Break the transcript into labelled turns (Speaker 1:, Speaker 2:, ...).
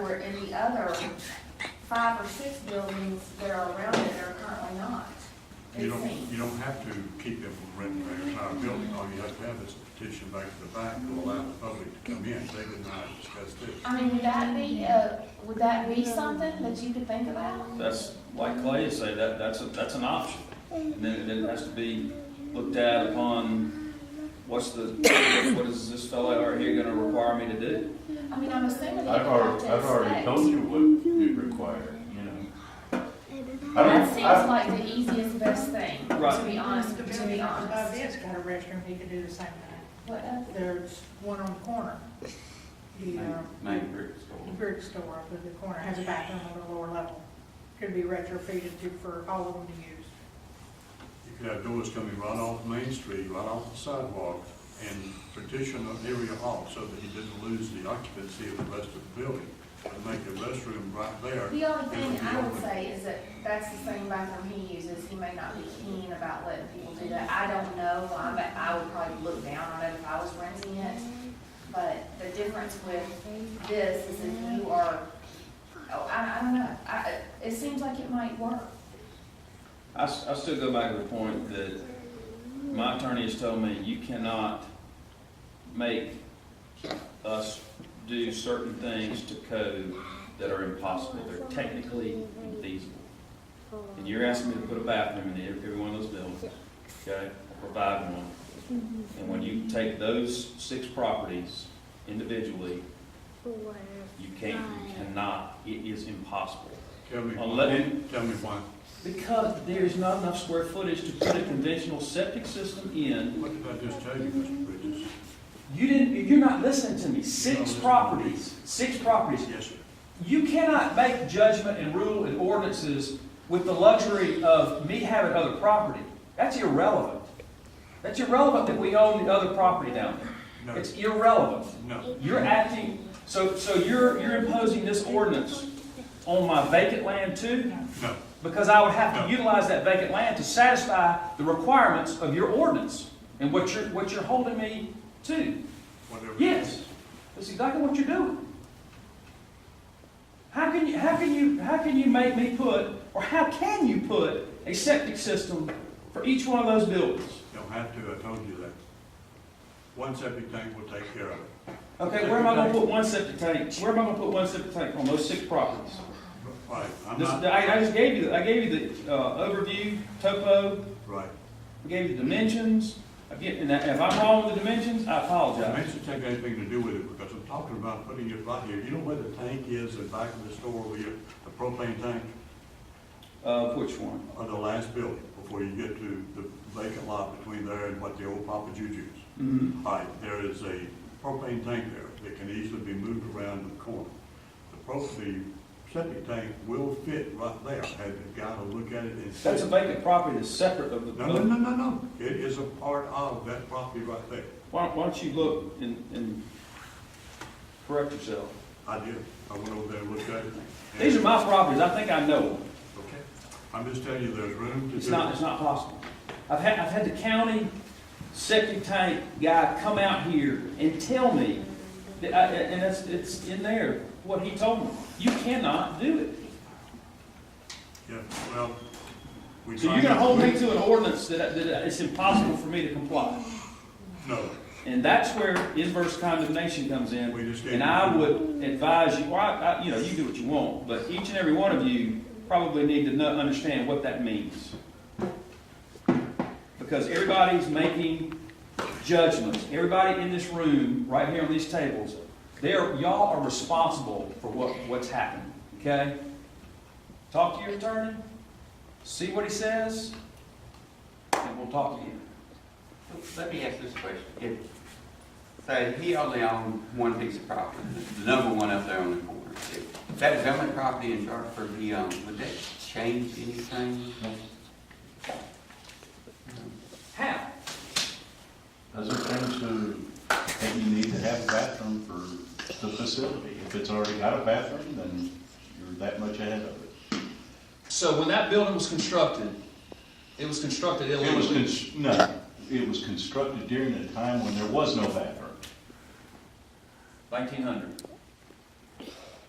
Speaker 1: were any other five or six buildings that are around it that are currently not.
Speaker 2: You
Speaker 1: It
Speaker 2: don't,
Speaker 1: seems.
Speaker 2: you don't have to keep them from renting their entire building, all you have to have is a petition back to the bank to allow the public to come in, David and I discussed this.
Speaker 1: I mean, would that be, uh, would that be something that you could think about?
Speaker 3: That's, like Clay say, that, that's, a- that's an option. And then, then it has to be looked at upon, what's the, what is this fellow right here gonna require me to do?
Speaker 1: I mean, I'm assuming that
Speaker 4: I've
Speaker 1: you have
Speaker 4: already,
Speaker 1: to
Speaker 4: I've already
Speaker 1: expect.
Speaker 4: told you what you require, you know. I
Speaker 1: That
Speaker 4: don't,
Speaker 1: seems
Speaker 4: I,
Speaker 1: like the easiest, best thing, to
Speaker 3: Right.
Speaker 1: be honest, to be
Speaker 5: Above
Speaker 1: honest.
Speaker 5: this got a restroom, he could do the same thing.
Speaker 1: What else?
Speaker 5: There's one on the corner. The, uh,
Speaker 3: Main brick store.
Speaker 5: the brick store up at the corner has a bathroom on the lower level. Could be retrofitted to, for all of them to use.
Speaker 2: You could have doors coming right off Main Street, right off the sidewalk, and partition an area off so that you didn't lose the occupancy of the rest of the building, and make the restroom right there.
Speaker 1: The only thing I would say is that that's the same bathroom he uses, he may not be keen about letting people do that, I don't know, I'm, I would probably look down on it if I was renting it. But the difference with this is if you are, oh, I, I don't know, I, it seems like it might work.
Speaker 3: I, s- I still go back to the point that my attorney has told me, you cannot make us do certain things to code that are impossible, they're technically infeasible. And you're asking me to put a bathroom in every every one of those buildings, okay, or provide one. And when you take those six properties individually, you can't, you cannot, it is impossible.
Speaker 2: Tell me,
Speaker 3: I'll
Speaker 2: why-
Speaker 3: let him-
Speaker 2: tell me why,
Speaker 3: Because there's not enough square footage to put a conventional septic system in.
Speaker 2: what did I just tell you, Mr. Bridges?
Speaker 3: You didn't, you're not listening to me. Six
Speaker 2: listening.
Speaker 3: properties, six properties.
Speaker 2: Yes, sir.
Speaker 3: You cannot make judgment and rule and ordinances with the luxury of me having other property. That's irrelevant. That's irrelevant that we own the other property down
Speaker 2: No,
Speaker 3: there. It's irrelevant.
Speaker 2: no,
Speaker 3: You're acting, so, so you're, you're imposing this ordinance on my vacant land too?
Speaker 2: no,
Speaker 3: Because I would have to utilize that vacant land to satisfy the requirements of your ordinance and what you're, what you're holding me to.
Speaker 2: whatever.
Speaker 3: Yes, that's exactly what you're doing. How can you, how can you, how can you make me put, or how can you put a septic system for each one of those buildings?
Speaker 2: Don't have to, I told you that. One septic tank will take care of it.
Speaker 3: Okay, where am I gonna put one septic tank, where am I gonna put one septic tank on those six properties?
Speaker 2: Right, I'm
Speaker 3: This,
Speaker 2: not,
Speaker 3: I, I just gave you, the- I gave you the, uh, overview, topo,
Speaker 2: right.
Speaker 3: I gave you the dimensions, again, and if I'm wrong with the dimensions, I
Speaker 2: The
Speaker 3: apologize.
Speaker 2: Dimensions have anything to do with it, because I'm talking about putting it right here. You know where the tank is in back of the store, where you, the propane tank,
Speaker 3: Uh, which one?
Speaker 2: or the last building, before you get to the vacant lot between there and what the old Papa Juju's.
Speaker 3: Mhm.
Speaker 2: All right, there is a propane tank there that can easily be moved around the corner. The propane septic tank will fit right there. Had the guy to look at it and say.
Speaker 3: That's a vacant property that's separate of the
Speaker 2: No, no, no, no, no. It is a part of that property right there.
Speaker 3: Why don't, why don't you look and, and correct yourself?
Speaker 2: I did. I went over there and looked at it. and-
Speaker 3: These are my properties, I think I know them.
Speaker 2: Okay. I'm just telling you, there's room to
Speaker 3: It's
Speaker 2: do.
Speaker 3: not, it's not possible. I've had, I've had the county septic tank guy come out here and tell me, that I- and it's, it's in there, what he told me. You cannot do it.
Speaker 2: Yeah, well, we.
Speaker 3: So you're gonna hold me to an ordinance that, that it's impossible for me to comply.
Speaker 2: No,
Speaker 3: And that's where inverse condemnation comes in.
Speaker 2: we just gave.
Speaker 3: And I would advise you, or I, I, you know, you do what you want, but each and every one of you probably need to know, understand what that means. Because everybody's making judgments. Everybody in this room, right here on these tables, they're, y'all are responsible for what, what's happened, okay? Talk to your attorney, see what he says, and we'll talk to you.
Speaker 6: Let me ask this question. If, say, he only owned one piece of property, the number one up there on the corner. If that was the only property in Sharpsburg he owned, would that change anything?
Speaker 3: How?
Speaker 4: does it come to, that you need to have a bathroom for the facility? If it's already got a bathroom, then you're that much ahead of it.
Speaker 7: So when that building was constructed, it was constructed
Speaker 4: It was,
Speaker 7: illegally.
Speaker 4: cons- no, it was constructed during a time when there was no bathroom.
Speaker 3: Nineteen hundred.